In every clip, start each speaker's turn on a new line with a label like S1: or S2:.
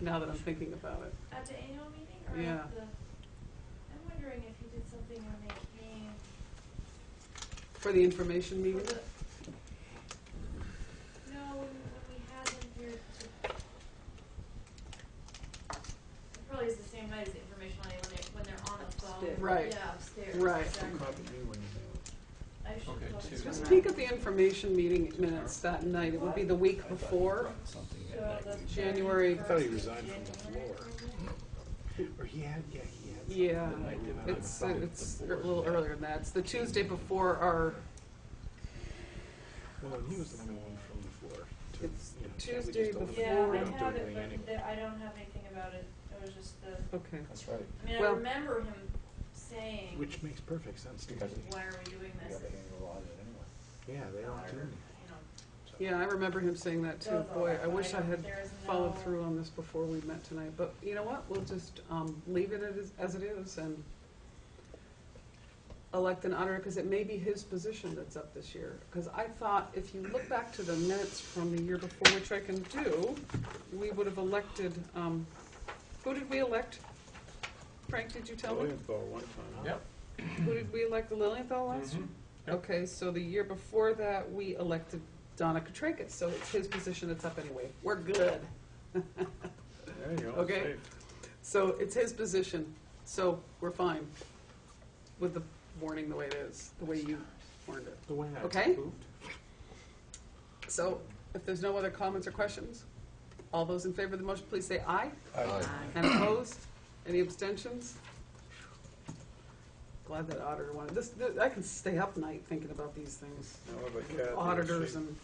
S1: now that I'm thinking about it.
S2: At the annual meeting or
S1: Yeah.
S2: at the, I'm wondering if he did something when they came.
S1: For the information
S2: for
S1: meeting?
S2: the- No, when, when we had them here to. It probably is the same night as the information night when they, when they're on the phone.
S3: Upstairs.
S1: Right.
S2: Yeah, upstairs.
S1: Right.
S2: exactly. I should
S4: Okay,
S2: probably
S4: two.
S2: check
S1: Just
S2: that.
S1: peek at the information meeting minutes that night. It would be the week before.
S4: Something
S2: So
S4: that
S2: that's
S4: night.
S1: January-
S5: I thought he
S2: first
S5: resigned from the
S2: January,
S5: floor.
S2: wasn't it?
S5: Or he had, yeah, he had. something.
S1: Yeah,
S5: I did not
S1: it's,
S5: know.
S1: it's a little earlier than that. It's the Tuesday before our,
S5: Well, and he was the one who went from the floor. to,
S1: It's
S5: you know, we
S1: Tuesday
S5: just don't have-
S2: Yeah,
S1: Before-
S5: we
S2: I
S5: don't do
S2: have
S5: anything anyway.
S2: it, but I don't have anything about it. It was just the,
S1: okay.
S4: That's right.
S2: I mean, I
S1: Well-
S2: remember him saying,
S5: Which makes perfect sense to me.
S4: Because-
S2: why are we doing
S4: You
S2: this?
S4: got to handle all of it anyway.
S5: Yeah, they don't do
S2: Or,
S5: anything.
S2: you know,
S5: so.
S1: Yeah, I remember him saying that too. Boy, I wish I had followed through on this before we met tonight. But you know what? We'll just um, leave it as- as it is and elect an honor because it may be his position that's up this year. Because I thought if you look back to the minutes from the year before, which I can do, we would have elected, um, who did we elect? Frank, did you tell me?
S5: Lilienthal went from, huh?
S4: Yep.
S1: Who did we elect, Lilienthal last year?
S4: Yep.
S1: Okay, so the year before that, we elected Donna Katrakis, so it's his position that's up anyway. We're good.
S5: There you go.
S1: Okay.
S5: saved.
S1: So it's his position, so we're fine with the warning the way it is, the way you warned it.
S5: The way I
S1: Okay.
S5: moved.
S1: So if there's no other comments or questions, all those in favor of the motion, please say aye. And opposed? Any abstentions? Glad that auditor wanted, this, th- I can stay up night thinking about these things.
S5: Now, what about Kathy?
S1: Auditors
S5: Is
S1: and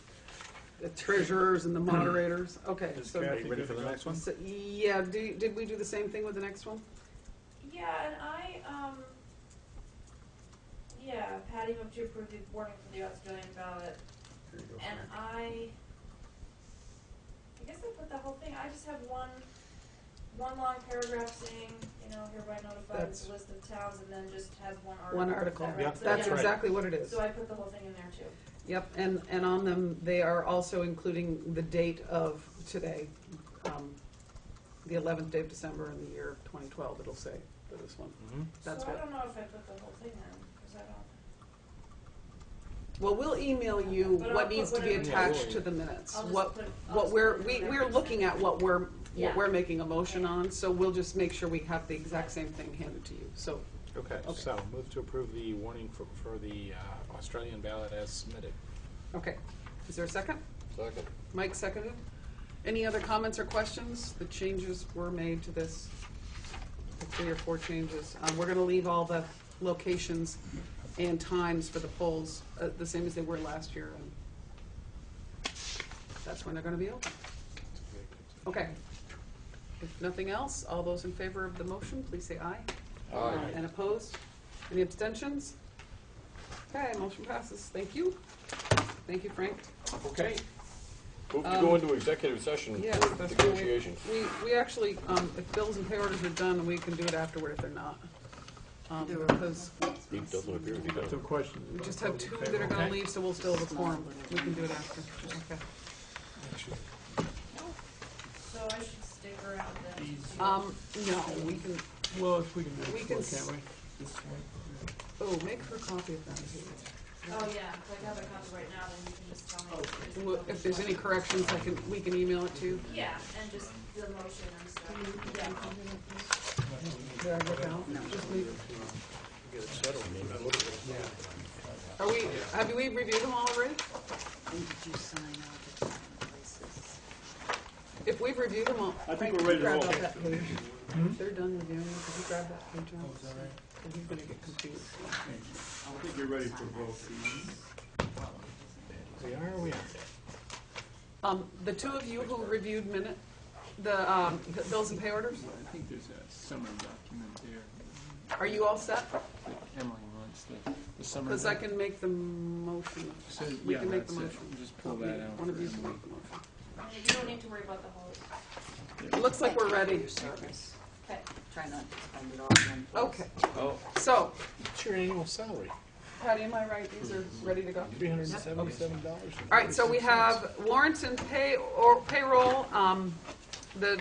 S1: the treasurers and the moderators, okay.
S5: she- Is
S1: so-
S5: Kathy
S4: ready for the
S5: good to
S4: next
S5: go?
S4: one?
S1: so, Yeah, do, did we do the same thing with the next one?
S2: Yeah, and I, um, yeah, Patty moved to approve the warning for the Australian ballot,
S5: There you go.
S2: and I, I guess I put the whole thing, I just have one, one long paragraph saying, you know, hereby notified
S1: That's-
S2: the list of towns, and then just had one article.
S1: One
S2: Is that
S1: article.
S2: right?
S5: Yep,
S2: So,
S1: That's
S2: yeah.
S5: right.
S1: exactly what it is.
S2: So I put the whole thing in there too.
S1: Yep, and, and on them, they are also including the date of today, um, the eleventh day of December in the year twenty twelve, it'll say for this one.
S5: Mhm.
S1: That's
S2: So I
S1: what,
S2: don't know if I put the whole thing in, because I don't,
S1: well, we'll email you
S2: But I'll
S1: what
S2: put
S1: needs to be
S2: whatever-
S1: attached to the minutes.
S2: I'll
S1: What,
S2: just put. I'll
S1: what
S2: just
S1: we're,
S2: put
S1: we,
S2: whatever
S1: we're
S2: it
S1: looking
S2: says.
S1: at what we're, what
S2: Yeah.
S1: we're making a motion
S2: Yeah.
S1: on, so we'll just make sure we have the exact same thing handed to you, so.
S5: Okay,
S1: Okay.
S5: so move to approve the warning for, for the uh, Australian ballot as submitted.
S1: Okay, is there a second?
S4: Second.
S1: Mike seconded. Any other comments or questions? The changes were made to this, the three or four changes. Um, We're going to leave all the locations and times for the polls uh, the same as they were last year. and That's when they're going to be open. Okay. If nothing else, all those in favor of the motion, please say aye. And opposed? Any abstentions? Okay, motion passes. Thank you. Thank you, Frank.
S6: Okay. Move to go
S1: Um,
S6: into executive session
S1: Yes,
S6: for
S1: that's what we-
S6: negotiations.
S1: We, we actually, um, if bills and pay orders are done, we can do it afterward if they're not. Um, because
S6: He doesn't appear to be done.
S1: we just have two that are gonna leave, so we'll still have a quorum. We can do it after. Okay.
S2: So I should stick around then. Oh,
S1: Um, no, we can,
S7: Well, if we can do it,
S1: We
S7: before,
S1: can
S7: can't
S1: s-
S7: we?
S1: oh, make her a copy of that too.
S2: Oh, yeah, if I have a copy right now, then you can just tell me. if there's
S1: Well, If there's any corrections, I can, we can email it to you.
S2: Yeah, and just the motion and stuff, yeah.
S1: Did I look out? Just leave it. Are we, have we reviewed them all already?
S3: When did you sign all the different places?
S1: If we've reviewed them all. I think we're ready to roll. Grab out that page.
S7: Hmm?
S1: If They're done reviewing, could you grab that page out? Because he's gonna get confused.
S5: We are, we are.
S1: Um, the two of you who reviewed minute, the, um, the bills and pay orders,
S7: I think there's a summary document there.
S1: are you all set?
S7: that Emily wants the, the summary.
S1: Because I can make the motion.
S7: So,
S1: We
S7: yeah,
S1: can make the
S7: that's it.
S1: motion.
S7: Just pull that out.
S1: One of you
S7: for
S1: can
S7: Emily.
S1: make the motion.
S2: I mean, You don't need to worry about the whole,
S1: It looks like we're
S3: Thank you for
S1: ready.
S3: your service.
S2: okay.
S3: Try not to spend it all in one place.
S1: Okay, so,
S5: It's your annual salary,
S1: Patty, am I right? These are ready to go?
S5: three hundred and seventy-seven dollars.
S1: All right, so we have warrants and pay, or payroll, um, the